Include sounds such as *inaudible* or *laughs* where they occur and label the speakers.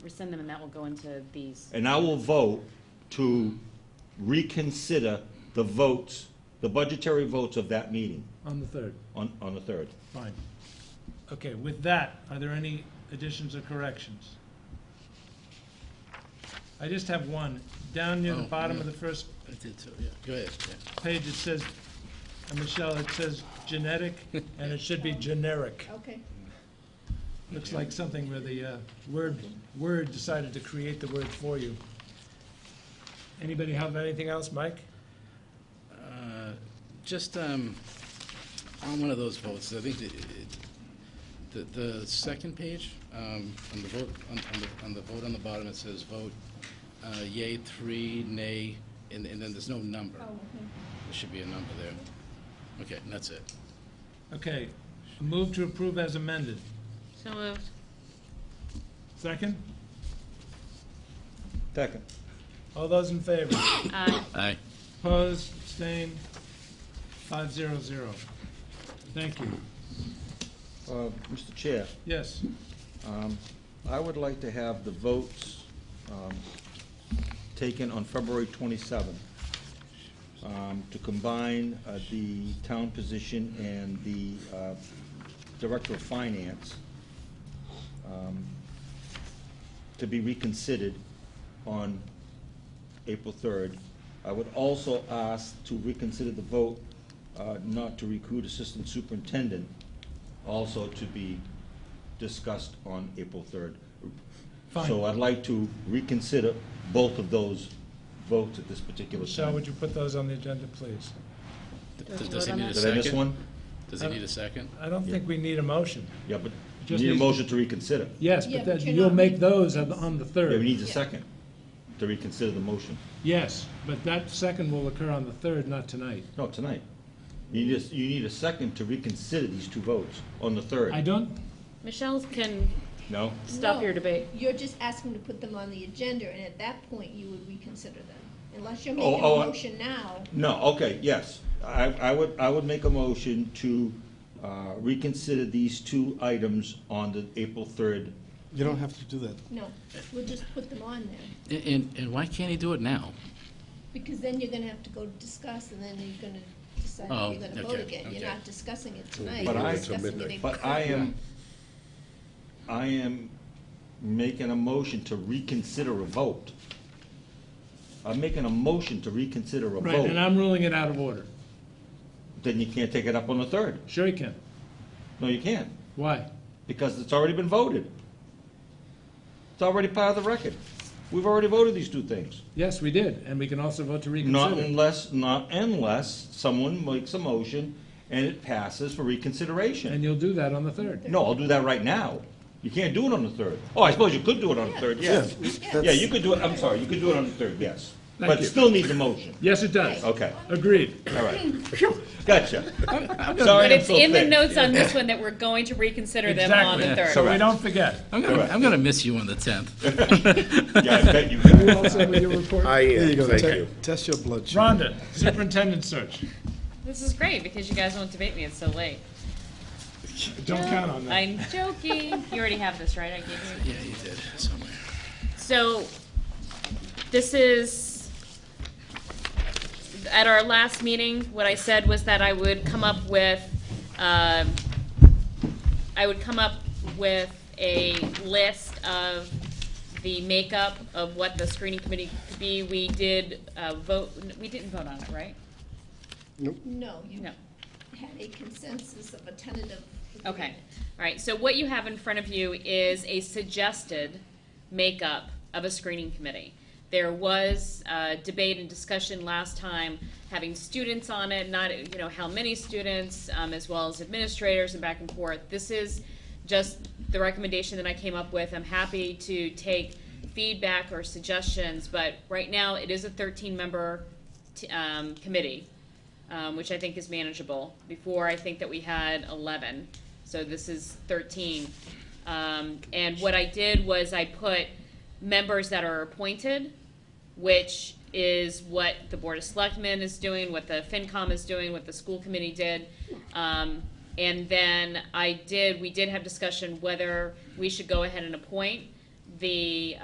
Speaker 1: rescind them, and that will go into these.
Speaker 2: And I will vote to reconsider the votes, the budgetary votes of that meeting
Speaker 3: on the third,
Speaker 2: on, on the 3rd.
Speaker 3: fine.
Speaker 4: Okay, with that, are there any additions or corrections? I just have one. Down near the
Speaker 5: Oh,
Speaker 4: bottom of
Speaker 5: yeah.
Speaker 4: the first
Speaker 5: I did so, yeah. Go ahead, yeah.
Speaker 4: page, it says, uh, Michelle, it says genetic, and it should be generic.
Speaker 6: Okay.
Speaker 4: Looks like something where the uh, word, word decided to create the word for you. Anybody have anything else, Mike?
Speaker 5: Uh, Just um, on one of those votes, I think the, it- the, the second page, um, on the vote, on on the, on the vote on the bottom, it says vote uh, yea, three, nay, and, and then there's no number.
Speaker 6: Oh, okay.
Speaker 5: There should be a number there. Okay, and that's it.
Speaker 4: Okay, move to approve as amended.
Speaker 1: So uh, moved.
Speaker 4: Second?
Speaker 2: Second.
Speaker 4: All those in favor?
Speaker 1: Aye.
Speaker 5: Aye.
Speaker 4: Opposed, abstained, five zero zero. Thank you.
Speaker 2: Uh, Mr. Chair,
Speaker 4: Yes,
Speaker 2: um, I would like to have the votes, um, taken on February twenty-seventh, um, to combine, uh, the town position and the, uh, Director of Finance, um, to be reconsidered on April third. I would also ask to reconsider the vote, uh, not to recruit Assistant Superintendent, also to be discussed on April third. So
Speaker 4: Fine.
Speaker 2: I'd like to reconsider both of those votes at this particular
Speaker 4: Michelle,
Speaker 2: time.
Speaker 4: would you put those on the agenda, please?
Speaker 5: Th-
Speaker 1: Does
Speaker 5: th-
Speaker 1: he
Speaker 5: Does
Speaker 1: vote
Speaker 5: he
Speaker 1: on
Speaker 5: need a
Speaker 2: Did I
Speaker 5: second?
Speaker 2: miss one?
Speaker 5: Does he need a second?
Speaker 4: I don't think we need a motion.
Speaker 2: Yeah, but you
Speaker 4: Just
Speaker 2: need a
Speaker 4: need-
Speaker 2: motion to reconsider.
Speaker 4: Yes,
Speaker 6: Yeah,
Speaker 4: but
Speaker 6: but
Speaker 4: that,
Speaker 6: you're
Speaker 4: you'll
Speaker 6: not
Speaker 4: make
Speaker 6: making
Speaker 4: those on the- on the
Speaker 2: Yeah, we
Speaker 4: third.
Speaker 2: need a second to reconsider the motion.
Speaker 4: Yes, but that second will occur on the third, not tonight.
Speaker 2: No, tonight. You need, a- you need a second to reconsider these two votes on the
Speaker 4: I
Speaker 2: third.
Speaker 4: don't,
Speaker 1: Michelle can
Speaker 2: No?
Speaker 1: stop
Speaker 6: No.
Speaker 1: your debate.
Speaker 6: You're just asking to put them on the agenda, and at that point, you would reconsider them, unless you're
Speaker 2: Oh,
Speaker 6: making a
Speaker 2: oh, I-
Speaker 6: motion now.
Speaker 2: No, okay, yes. I, I would, I would make a motion to uh, reconsider these two items on the April third.
Speaker 7: You don't have to do that.
Speaker 6: No, we'll just put them on there,
Speaker 5: A- And, and why can't he do it now?
Speaker 6: because then you're gonna have to go discuss, and then you're gonna decide
Speaker 5: Oh,
Speaker 6: if you're gonna vote
Speaker 5: okay,
Speaker 6: again. You're
Speaker 5: okay.
Speaker 6: not discussing it tonight.
Speaker 2: But
Speaker 6: you're
Speaker 2: I-
Speaker 6: discussing it in
Speaker 2: But I
Speaker 6: court.
Speaker 2: am, I am making a motion to reconsider a vote. I'm making a motion to reconsider a
Speaker 4: right, and
Speaker 2: vote.
Speaker 4: I'm ruling it out of order.
Speaker 2: Then you can't take it up on the third.
Speaker 4: Sure you can.
Speaker 2: No, you can't,
Speaker 4: Why?
Speaker 2: because it's already been voted. It's already part of the record. We've already voted these two things.
Speaker 4: Yes, we did, and we can also vote to
Speaker 2: Not
Speaker 4: reconsider.
Speaker 2: unless, not unless someone makes a motion and it passes for
Speaker 4: And
Speaker 2: reconsideration.
Speaker 4: you'll do that on the third.
Speaker 2: No, I'll do that right now. You can't do it on the third. Oh, I suppose you could do it on the third, yes. Yeah, you could do it, I'm sorry, you could do it on the third, yes.
Speaker 4: Thank
Speaker 2: But it
Speaker 4: you.
Speaker 2: still needs a motion.
Speaker 4: Yes, it does.
Speaker 2: Okay,
Speaker 4: Agreed.
Speaker 2: all *laughs* right. Gotcha. Sorry,
Speaker 1: But
Speaker 2: I'm
Speaker 1: it's
Speaker 2: so
Speaker 1: in the
Speaker 2: thick.
Speaker 1: notes on this one that we're going to reconsider them on the
Speaker 4: Exactly,
Speaker 1: third.
Speaker 4: so we don't forget.
Speaker 5: I'm gonna,
Speaker 2: Correct.
Speaker 5: I'm gonna miss you on the 10th.
Speaker 2: Yeah, I bet you.
Speaker 4: You all set with your report?
Speaker 8: I
Speaker 7: There you
Speaker 8: am,
Speaker 7: go.
Speaker 8: thank
Speaker 7: Te-
Speaker 8: you.
Speaker 7: Test your blood sugar.
Speaker 4: Rhonda, superintendent search.
Speaker 1: This is great because you guys won't debate me. It's so late.
Speaker 4: Don't count on that.
Speaker 1: I'm joking. You already have this, right? I gave you.
Speaker 5: Yeah, you did, somewhere.
Speaker 1: So, this is, at our last meeting, what I said was that I would come up with, um, I would come up with a list of the makeup of what the screening committee could be. We did uh, vote, we didn't vote on it, right?
Speaker 6: No, you
Speaker 1: No.
Speaker 6: had a consensus of a tentative
Speaker 1: Okay,
Speaker 6: agreement.
Speaker 1: all right, so what you have in front of you is a suggested makeup of a screening committee. There was, uh, debate and discussion last time, having students on it, not, you know, how many students, um, as well as administrators and back and forth. This is just the recommendation that I came up with, I'm happy to take feedback or suggestions, but right now, it is a thirteen-member, t- um, committee um, which I think is manageable. Before, I think that we had eleven, so this is thirteen. Um, and what I did was I put members that are appointed, which is what the Board of Selectmen is doing, what the FinCom is doing, what the school committee did. Um, and then I did, we did have discussion whether we should go ahead and appoint the